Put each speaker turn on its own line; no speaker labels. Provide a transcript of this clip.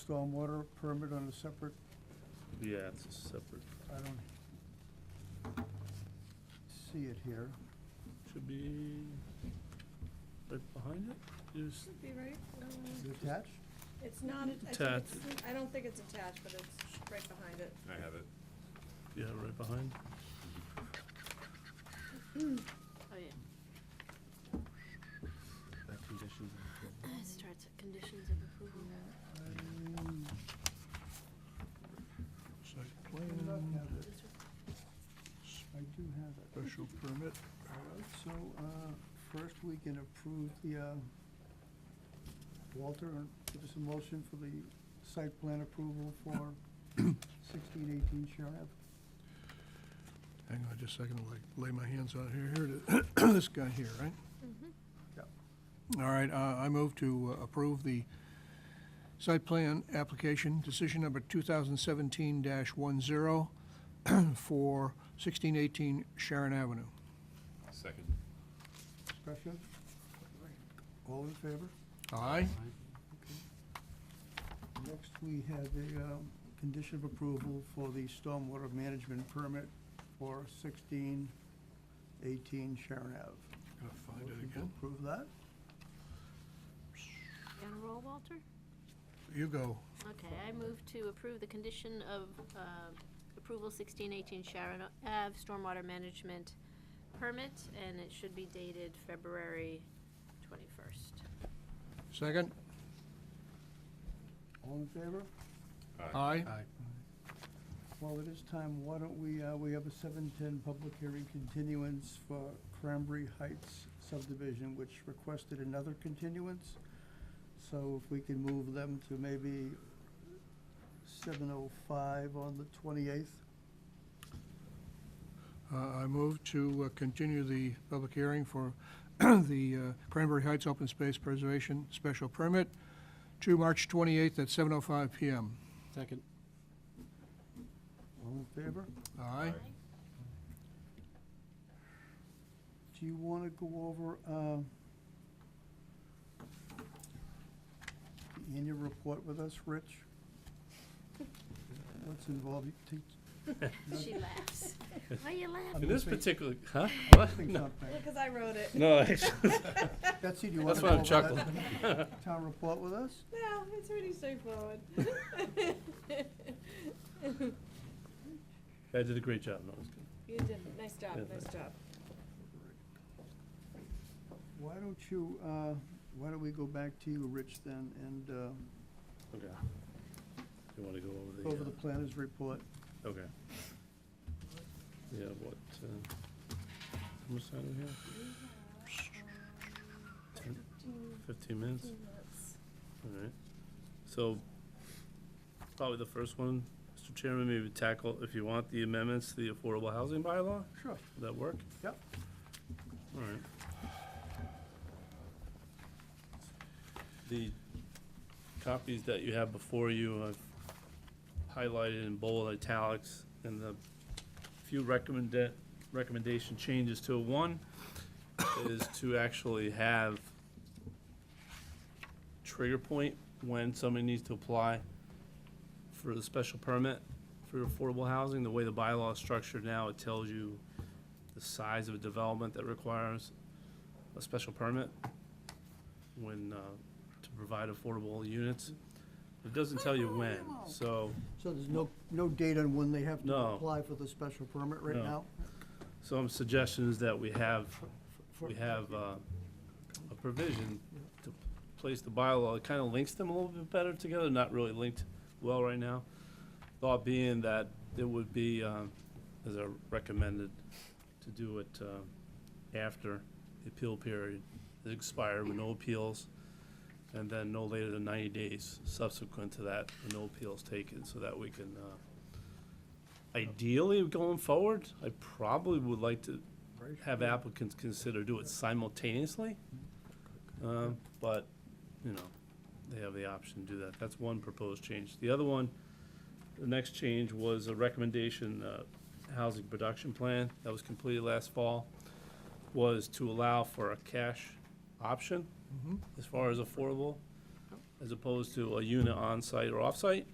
stormwater permit on a separate,
Yeah, it's a separate,
I don't see it here.
should be right behind it. You s-
Should be right,
Is
um,
it attached?
it's not, a- I think it's, I don't think it's attached, but it's right behind it.
I have it.
Yeah, right behind.
Oh, yeah. It starts at conditions of approval.
Um,
Site
I do not
plan,
have it.
This
I
one.
do have it.
special permit,
All right, so, uh, first we can approve the, uh, Walter, uh, give us a motion for the site plan approval for sixteen eighteen Sharon Ave.
hang on just a second, I'll like lay my hands on it here, here it is, this guy here, right?
Yep.
All right, uh, I move to uh, approve the site plan application, decision number 2017-10 for 1618 Sharon Avenue.
Second.
Discussion? All in favor?
Aye?
Next, we have a um, condition of approval for the stormwater management permit for sixteen eighteen Sharon Ave.
Gotta find it
Motion to
again.
Approve that?
You on a roll, Walter?
You go.
Okay, I move to approve the condition of um, approval 1618 Sharon Ave Stormwater Management Permit, and it should be dated February 21st.
Second?
All in favor?
Aye?
Well, it is time, why don't we, uh, we have a seven-ten public hearing continuance for Cranberry Heights subdivision, which requested another continuance. So if we can move them to maybe seven oh five on the twenty-eighth,
Uh, I move to uh, continue the public hearing for the uh, Cranberry Heights Open Space Preservation Special Permit to March 28th at 7:05 PM.
Second.
all in favor?
Aye?
Do you want to go over um, the annual report with us, Rich? What's involved? You take-
She laughs. Why you laughing?
In this
think-
particular, huh?
I think not bad.
Because I wrote it.
No,
Betsy, do you want to go
that's why I'm
over
chuckling.
that town report with us?
No, it's pretty straightforward.
I did a great job, no, it's good.
You did, nice job,
Yeah,
nice
thanks.
job.
Why don't you, uh, why don't we go back to you, Rich, then, and uh,
Okay. You wanna go over the?
go over the
uh,
planner's report?
Okay. Yeah, what, uh, how much time do we have?
Um,
Ten, fifteen minutes? All right. So, probably the first one, Mr. Chairman, maybe tackle, if you want, the amendments to the affordable housing bylaw?
Sure.
Would that work?
Yep.
All right. The copies that you have before you, I've highlighted in bold italics, and the few recommend, recommendation changes to one is to actually have trigger point when somebody needs to apply for the special permit for affordable housing. The way the bylaw is structured now, it tells you the size of a development that requires a special permit when, uh, to provide affordable units. It doesn't tell you when, so,
So there's no, no date on when they have to
No.
apply for the special permit right
No.
now?
some suggestions that we have,
For-
we have, uh, a provision to place the bylaw, it kinda links them a little bit better together, not really linked well right now. Thought being that it would be, um, as I recommended, to do it, um, after the appeal period is expired with no appeals, and then no later than ninety days subsequent to that, with no appeals taken, so that we can, uh, ideally, going forward, I probably would like to have applicants consider do it simultaneously. Um, but, you know, they have the option to do that. That's one proposed change. The other one, the next change was a recommendation, uh, housing production plan that was completed last fall,
Mm-hmm.
was to allow for a cash option as far as affordable. as opposed to a unit on-site or off-site.